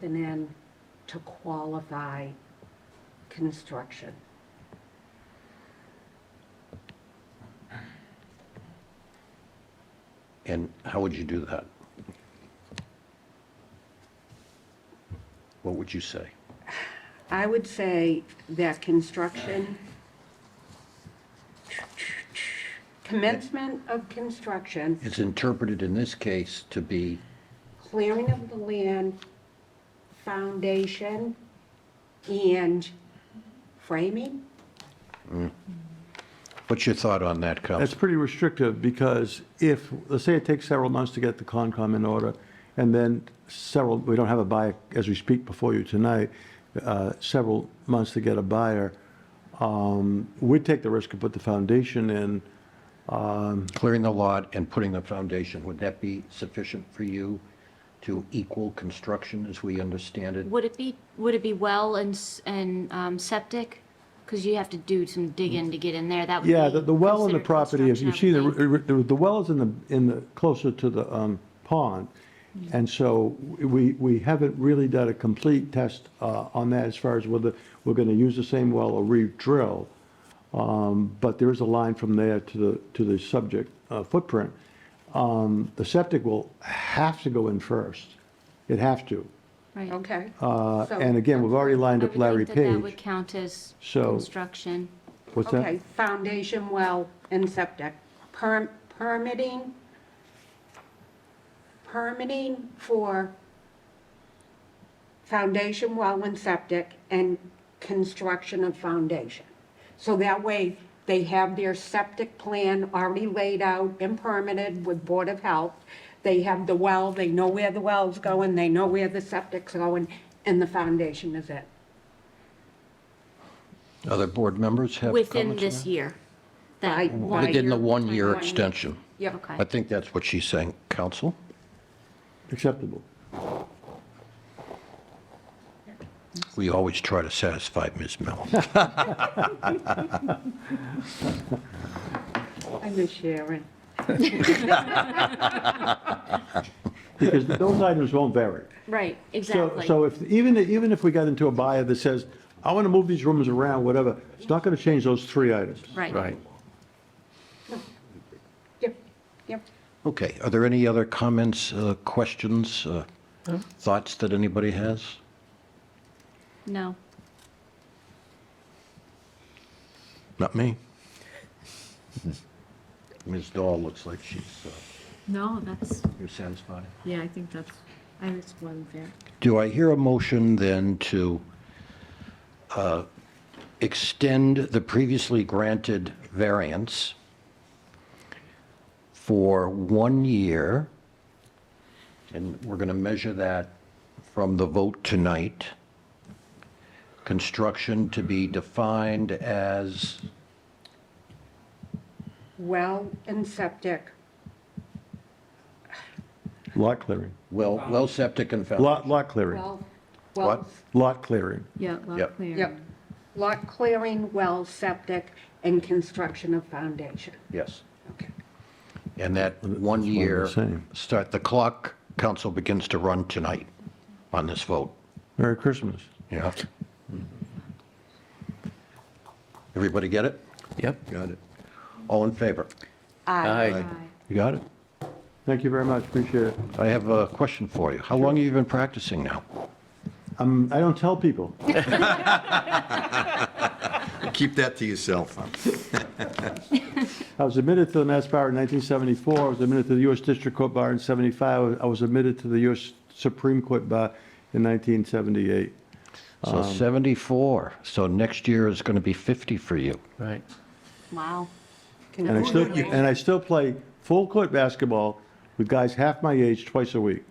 something in to qualify construction. And how would you do that? What would you say? I would say that construction, commencement of construction, It's interpreted in this case to be, clearing of the land, foundation, and framing? what's your thought on that, That's Counsel? pretty restrictive, because if, let's say it takes several months to get the Concom in order, and then several, we don't have a buyer, as we speak before you tonight, uh, several months to get a buyer, um, we'd take the risk and put the foundation in, Clearing the lot and putting the foundation, would that be sufficient for you to equal construction as we understand it? Would it be, would it be well and, s- and um, septic? Because you have to do some digging to get in there, that would be. Yeah, the, the well in the considered property, if you see construction, the, I would think. the the well is in the, in the, closer to the um, pond. Mm-hmm. And so we, we haven't really done a complete test uh, on that as far as whether we're going to use the same well or re-drill. Um, But there is a line from there to the, to the subject uh, footprint. Um, The septic will have to go in first. It have to. Right. Okay. Uh, So- And again, we've already lined I up would Larry think that That would Page. count as So- construction. What's that? Okay, foundation, well, and septic. Per- Permitting, permitting for foundation, well, and septic, and construction of foundation. So that way, they have their septic plan already laid out and permitted with Board of Health. They have the well, they know where the well's going, they know where the septic's going, and the foundation is it. Other board members have comments Within on this that? year. That Right. one Within the year- one-year extension. Yep. Okay. I think that's what she's saying, Counsel. Acceptable. We always try to satisfy Ms. Mel. I miss Sharon. Because those items won't vary. Right, So, exactly. so if, even, even if we got into a buyer that says, I want to move these rooms around, whatever, it's not going to change those three items. Right. Yep, yep. Okay, are there any other comments, uh, questions, uh, thoughts that anybody has? No. Not me. Ms. Dahl looks like she's, uh, No, that's, you're satisfied. yeah, I think that's, I was one there. Do I hear a motion then to uh, extend the previously granted variance for one year? And we're going to measure that from the vote tonight. Construction to be defined as, well and septic, Lot clearing, well, well septic and fountain. lot, lot clearing, well, What? well, lot clearing. Yeah, Yep. lot clear. yep. Lot clearing, well, septic, and construction of foundation. Yes. Okay. And that one and the year, same. start the clock, council begins to run tonight on this vote. Merry Christmas. Yeah. Mm-hmm. Everybody get it? Yep. Got it. All in favor? Aye. You got it? Thank you very much, appreciate it. I have a question for you. How long have you been practicing now? Um, I don't tell people. Keep that to yourself. I was admitted to the Mass Bar in 1974, I was admitted to the U.S. District Court Bar in 75, I was admitted to the U.S. Supreme Court Bar in 1978. So 74, so next year is going to be 50 for you. Right. Wow. And I still, and I still play full court basketball with guys half my age twice a week.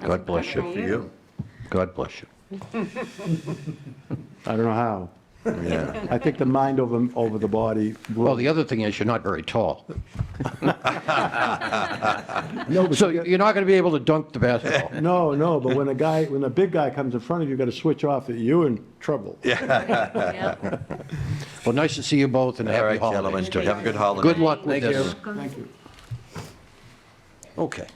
God bless you. For you. God bless you. I don't know how. Yeah. I think the mind over, over the body. Well, the other thing is, you're not very tall. No, but So you got- you're not going to be able to dunk the basketball. No, no, but when a guy, when a big guy comes in front of you, you gotta switch off, you're in trouble. Yep. Well, nice to see you both and All happy right, holidays. gentlemen, have a good holiday. Good luck with this. Thank you. Okay.